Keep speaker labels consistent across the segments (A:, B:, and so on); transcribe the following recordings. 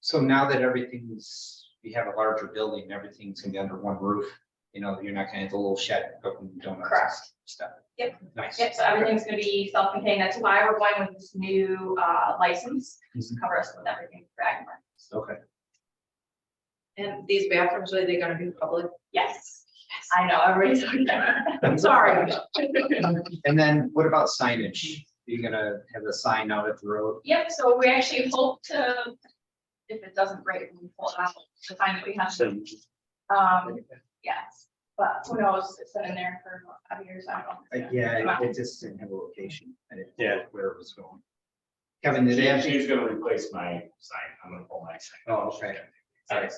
A: So now that everything's, we have a larger building, everything's gonna be under one roof, you know, you're not gonna have the little shed, open donuts and
B: Correct.
A: stuff.
B: Yep.
A: Nice.
B: Yep, so everything's gonna be self-contained, that's why we're going with this new uh license, just to cover us with everything for Agmar.
A: Okay.
C: And these bathrooms, are they gonna be public?
B: Yes, I know, everybody's like that. I'm sorry.
A: And then what about signage? You're gonna have a sign out at the road?
B: Yep, so we actually hope to, if it doesn't break, we pull it out, the time that we have. Um, yes, but who knows, it's been in there for five years, I
A: Uh,
B: don't know.
A: Yeah, it- it just didn't have a location. I didn't know
D: Yeah.
A: Where it was going. Kevin, did they have?
D: She's gonna replace my sign, I'm gonna pull my sign.
A: Oh, okay.
D: All right.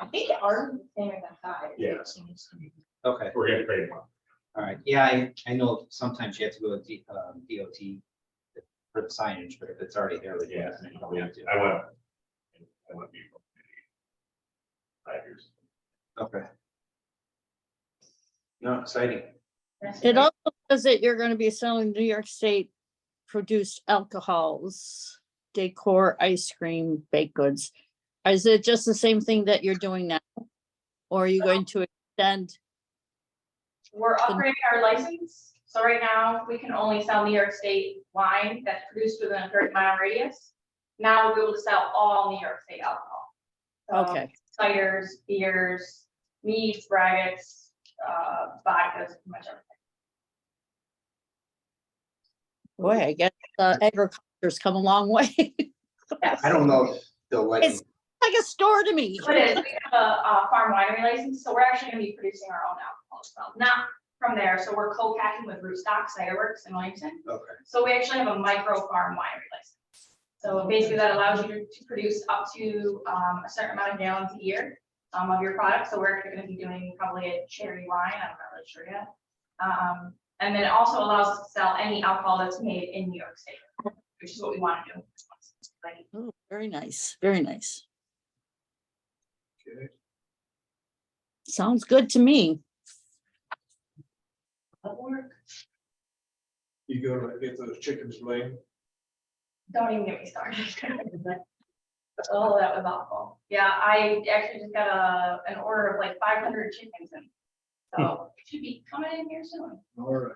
B: I think it are the same as that side.
D: Yeah, so it's gonna be-
A: Okay,
D: we're gonna create one.
A: all right. Yeah, I, I know sometimes you have to go to D- um, DOT for the signage, but if it's already there, we
D: Yeah,
A: don't
D: I went.
A: have to.
D: I went before. Five years.
A: Okay. No, exciting.
E: It also says that you're gonna be selling New York State produced alcohols, decor, ice cream, baked goods. Is it just the same thing that you're doing now? Or are you going to extend?
B: We're upgrading our license, so right now, we can only sell New York State wine that's produced within a thirty mile radius. Now we'll be able to sell all New York State alcohol. So
E: Okay,
B: Ciders, beers, meats, braggots, uh, vodkas, pretty much everything.
E: boy, I guess uh, agriculture's come a long way. Like
B: Yes.
A: I don't know if they'll let you.
E: It's- a store to me.
B: It is, we have a, uh farm winery license, so we're actually gonna be producing our own alcohol as well, not from there, so we're co-packing with Rootstock Cider Works in Williamson.
A: Okay.
B: So we actually have a micro farm winery license. So basically that allows you to produce up to, um, a certain amount of gallons a year, um, of your product, so we're gonna be doing probably a cherry wine, I'm not really sure yet. Um, and then it also allows us to sell any alcohol that's made in New York State, which is what we wanna do. Like,
E: Oh, Very nice, very nice.
A: Good.
E: Sounds good to me.
B: that work.
F: You gonna get those chickens laying?
B: Don't even get me started. Oh, that was awful. Yeah, I actually just got a, an order of like five hundred chickens and
F: Hmm.
B: so it should be coming in here soon.
F: All right.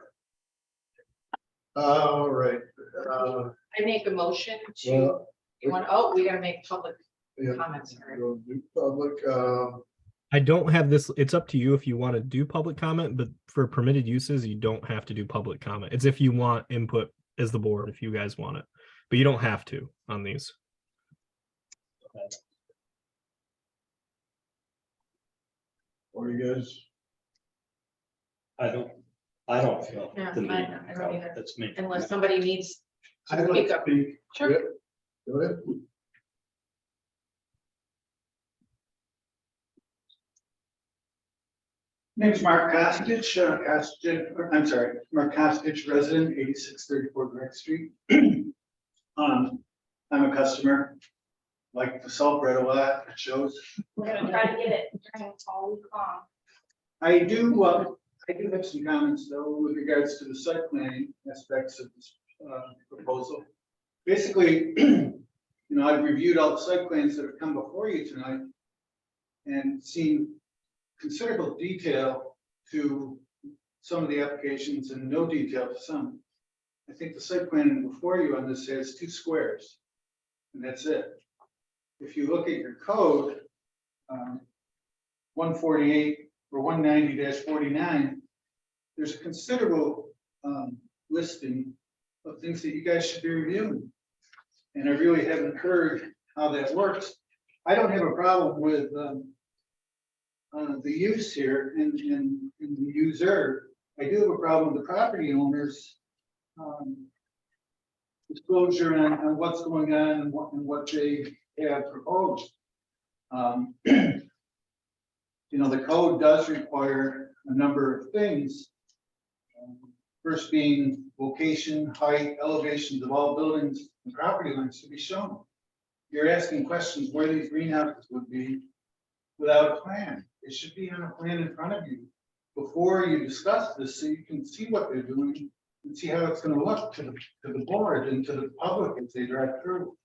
F: All right, uh,
C: I make a motion to,
F: well,
C: you want, oh, we gotta make public
F: yeah,
C: comments. first.
F: we'll do public, uh,
G: um,
H: I don't have this. It's up to you if you want to do public comment, but for permitted uses, you don't have to do public comment. It's if you want input as the board, if you guys want it, but you don't have to on these.
F: what do you guys,
I: I don't, I don't feel.
C: Yeah,
I: the
C: I
I: need
C: don't-
I: to
C: I don't
I: go.
C: either.
I: That's me.
C: Unless somebody needs. to
F: I'd like
C: speak
F: to
C: up.
F: speak.
C: Sure.
F: Yep. Go ahead.
G: Name's Mark Kostich, uh, Kostich, or, I'm sorry, Mark Kostich, resident, eighty-six thirty-four Direct Street. Um, I'm a customer, like the salt bread a lot, it shows.
B: We're gonna try to get it during all week long.
G: I do, uh, I do have some comments though with regards to the site planning aspects of this, uh, proposal. Basically, you know, I've reviewed all the site plans that have come before you tonight and seen considerable detail to some of the applications and no detail to some. I think the site plan before you on this has two squares, and that's it. If you look at your code, um, one forty-eight for one ninety forty-nine, there's a considerable um listing of things that you guys should be reviewing. And I really haven't heard how that works. I don't have a problem with um uh, the use here and and and the user. I do have a problem with the property owners um disclosure on on what's going on and what and what they have proposed. Um, you know, the code does require a number of things. Um, First being location, height, elevations of all buildings and property lines to be shown. You're asking questions where these greenhouses would be without a plan. It should be on a plan in front of you before you discuss this, so you can see what they're doing and see how it's gonna look to the, to the board and to the public as they drive through.